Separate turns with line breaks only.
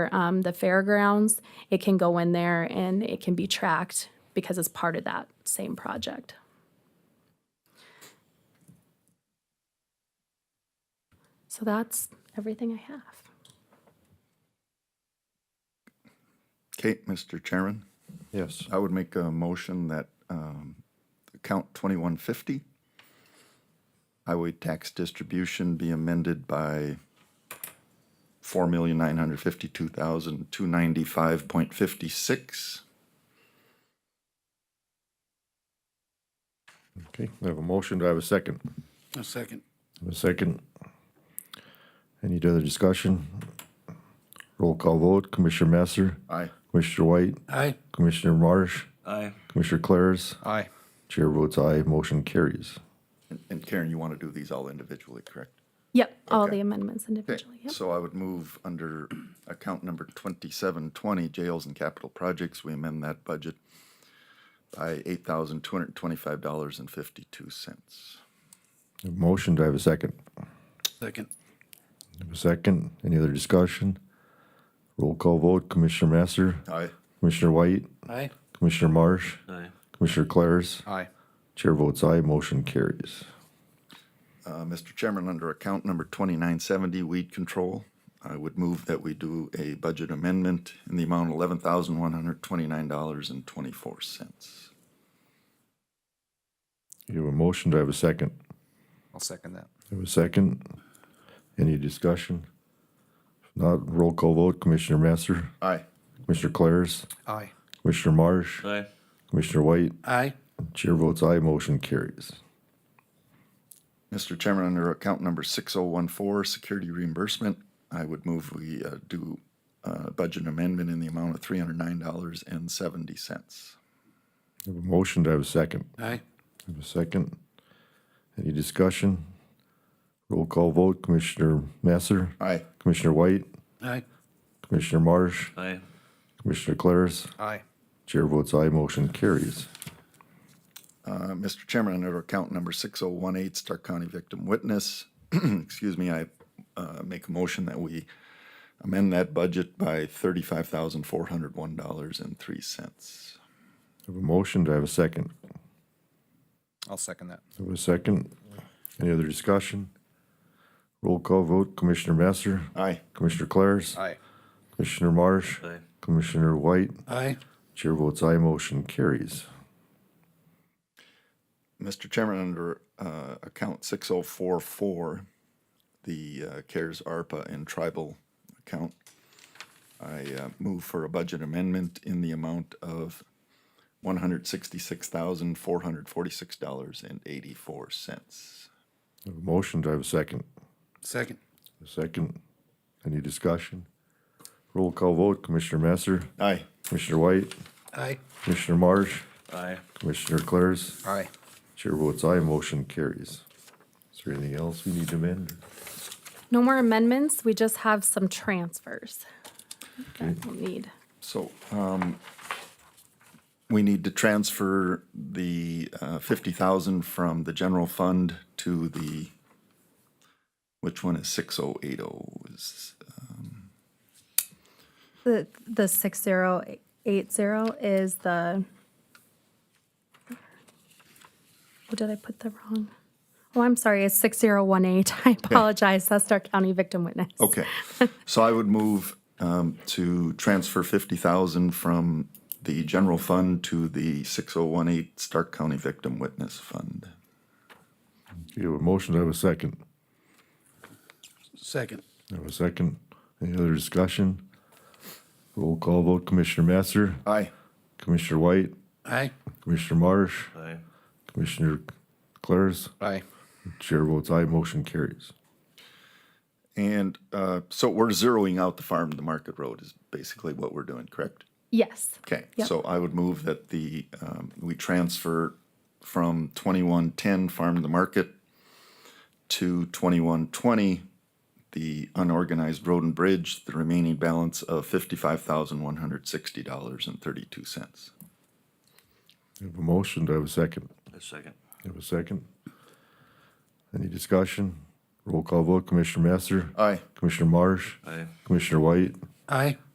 um, the fairgrounds, it can go in there and it can be tracked because it's part of that same project. So that's everything I have.
Okay, Mr. Chairman,
Yes,
I would make a motion that um, account 2150, highway tax distribution be amended by 4,952,295.56.
okay, we have a motion, do I have a second?
A second.
I have A second. Any other discussion? Roll call vote, Commissioner Masser,
Aye.
Commissioner White,
Aye.
Commissioner Marsh,
Aye.
Commissioner Claris,
Aye.
Chair votes aye, motion carries.
And- And Karen, you want to do these all individually, correct?
Yep, all
Okay.
the amendments
Okay,
individually. Yep.
so I would move under account number 2720, jails and capital projects, we amend that budget by $8,225.52.
I have a Motion, do I have a second?
Second.
I have A second, any other discussion? Roll call vote, Commissioner Masser,
Aye.
Commissioner White,
Aye.
Commissioner Marsh,
Aye.
Commissioner Claris,
Aye.
Chair votes aye, motion carries.
Uh, Mr. Chairman, under account number 2970, weed control, I would move that we do a budget amendment in the amount of $11,129.24.
You have a motion, do I have a second?
I'll second that.
I have a second. Any discussion? If not, roll call vote. Commissioner Masser,
Aye.
Commissioner Claris,
Aye.
Commissioner Marsh,
Aye.
Commissioner White.
Aye.
Chair votes aye, motion carries.
Mr. Chairman, under account number 6014, security reimbursement, I would move we uh, do a budget amendment in the amount of $309.70.
I have a motion, do I have a second? I
Aye.
have a second. Any discussion? Roll call vote. Commissioner Masser,
Aye.
Commissioner White,
Aye.
Commissioner Marsh,
Aye.
Commissioner Claris.
Aye.
Chair votes aye, motion carries.
Uh, Mr. Chairman, under account number 6018, Stark County Victim Witness, excuse me, I uh, make a motion that we amend that budget by $35,401.03.
I have a motion, do I have a second?
I'll second that.
I have a second. Any other discussion? Roll call vote. Commissioner Masser,
Aye.
Commissioner Claris,
Aye.
Commissioner Marsh,
Aye.
Commissioner White,
Aye.
Chair votes aye, motion carries.
Mr. Chairman, under uh, account 6044, the uh, CARES ARPA and tribal account, I uh, move for a budget amendment in the amount of $166,446.84.
I have a motion, do I have a second?
Second.
A second. Any discussion? Roll call vote. Commissioner Masser,
Aye.
Commissioner White,
Aye.
Commissioner Marsh,
Aye.
Commissioner Claris,
Aye.
Chair votes aye, motion carries. Is there anything else we need to amend?
No more amendments. We just have some transfers that we'll need.
So um, we need to transfer the uh, 50,000 from the general fund to the, which one is 6080? Is
The, the 6080 is the, what did I put the wrong? Oh, I'm sorry, it's 6018. I apologize. That's our county victim witness.
Okay, so I would move um, to transfer fifty thousand from the general fund to the six oh one eight Stark County Victim Witness Fund.
You have a motion, do I have a second?
Second.
I have a second. Any other discussion? Roll call vote. Commissioner Masser,
Aye.
Commissioner White,
Aye.
Commissioner Marsh,
Aye.
Commissioner Claris,
Aye.
Chair votes aye, motion carries.
And uh, so we're zeroing out the farm to market road is basically what we're doing, correct?
Yes.
Okay,
Yep.
so I would move that the, um, we transfer from twenty-one ten farm to market to twenty-one twenty, the unorganized road and bridge, the remaining balance of fifty-five thousand one hundred sixty dollars and thirty-two cents.
I have a motion, do I have a second?
A second.
I have a second. Any discussion? Roll call vote, Commissioner Masser,
Aye.
Commissioner Marsh,
Aye.
Commissioner White,
Aye.